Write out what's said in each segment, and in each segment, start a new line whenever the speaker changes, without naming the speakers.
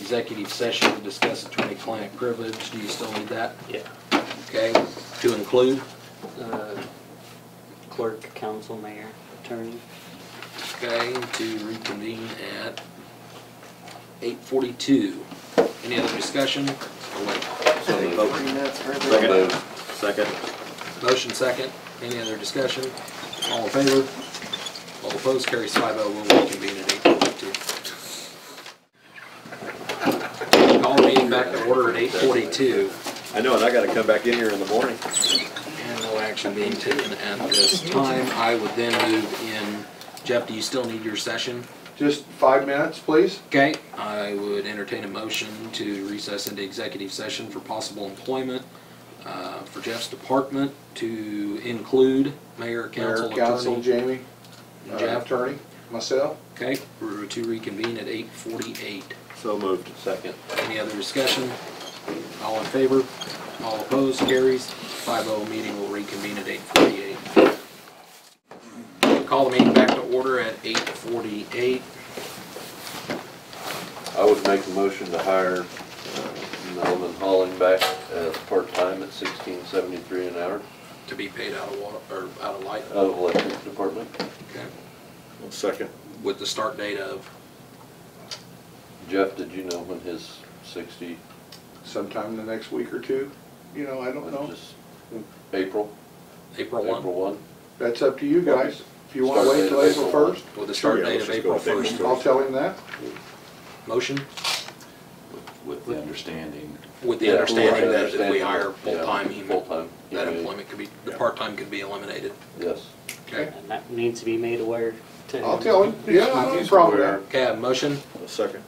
executive session to discuss attorney-client privilege. Do you still need that?
Yeah.
Okay, to include?
Uh, Clerk, council, mayor, attorney.
Okay, to reconvene at eight forty-two. Any other discussion? Or wait,
So
Take
moved.
three minutes for every-
So moved. Second.
Motion second, any other discussion? All in favor? All opposed, carries five oh, we'll reconvene at eight forty-two. Call meeting back to order at eight forty-two.
I know, and I gotta come back in here in the morning.
And no action being taken at this time. I would then move in, Jeff, do you still need your session?
Just five minutes, please.
Okay, I would entertain a motion to recess into executive session for possible employment uh, for Jeff's department to include mayor,
Mayor,
council,
council,
attorney,
Jamie, uh,
and Jeff.
attorney, myself.
Okay, we're to reconvene at eight forty-eight.
So moved. Second.
Any other discussion? All in favor? All opposed? Carries. 5-0 meeting will reconvene at 8:48. Call the meeting back to order at 8:48.
I would make a motion to hire uh, Melvin Holling back as part-time at sixteen seventy-three an hour
To be paid out of water, or out of light,
out of electric department,
okay,
Second.
with the start date of,
Jeff, did you know when his sixty
Sometime in the next week or two, you know, I don't
was
know.
just April,
April
April
1?
one?
That's up to you guys. If you wanna wait till
Start date of April.
April first,
With the start
Sure, yeah,
date
let's
of
just
April
go with April
1st.
I'll tell him that.
Motion
with the understanding
with the
Yeah,
understanding that if we
understanding
hire
that, yeah,
full-time, he-
Full-time. he
that
may-
employment could be, the part-time could be eliminated.
Yes.
Okay,
And that needs to be made aware to.
I'll tell him, yeah, I don't have a problem with that.
okay, I have a motion?
Second.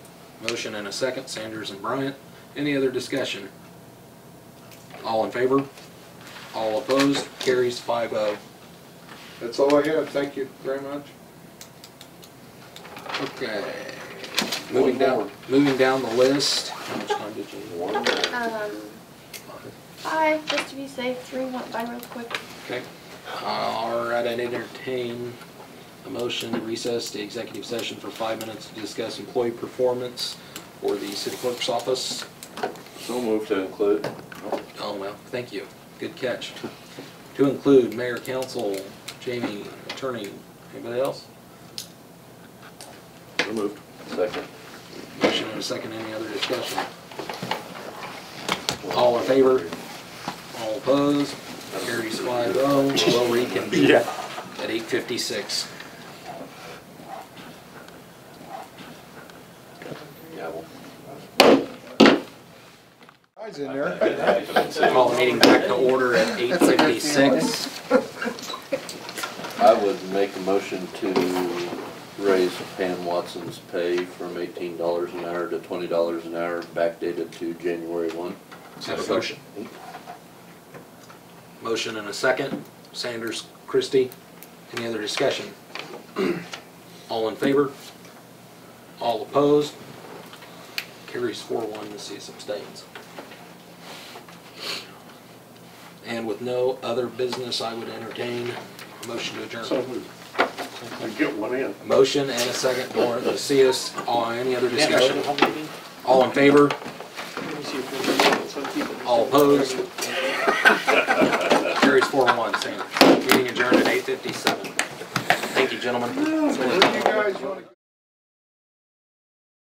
Motion and a second, Sanders and Bryant. Any other discussion? All in favor? All opposed? Carries five oh.
That's all I have. Thank you very much.
Okay. Moving down, moving down the list. How much time did you need?
One more.
Um, five, just to be safe, three went by real quick.
Okay. All right, I'd entertain a motion to recess to executive session for five minutes to discuss employee performance or the city clerk's office.
So moved to include.
Oh, well, thank you. Good catch. To include mayor, council, Jamie, attorney, anybody else?
So moved.
Second.
Motion and a second, any other discussion? All in favor? All opposed? Carries five oh, we'll reconvene at eight fifty-six.
Yeah, well.
Guys in there.
Call the meeting back to order at eight fifty-six.
I would make a motion to raise Pam Watson's pay from eighteen dollars an hour to twenty dollars an hour, backdated to January one.
Have a motion. Motion and a second, Sanders, Christie, any other discussion? All in favor? All opposed? Carries four one, the cease abstains. And with no other business, I would entertain a motion to adjourn.
Get one in.
Motion and a second, Dora Lucius, all, any other
Yeah, vote
discussion?
at home meeting.
All in favor?
Let me see if there's any-
All opposed? Carries four one, Sanders. Meeting adjourned at eight fifty-seven. Thank you, gentlemen.
Where do you guys wanna?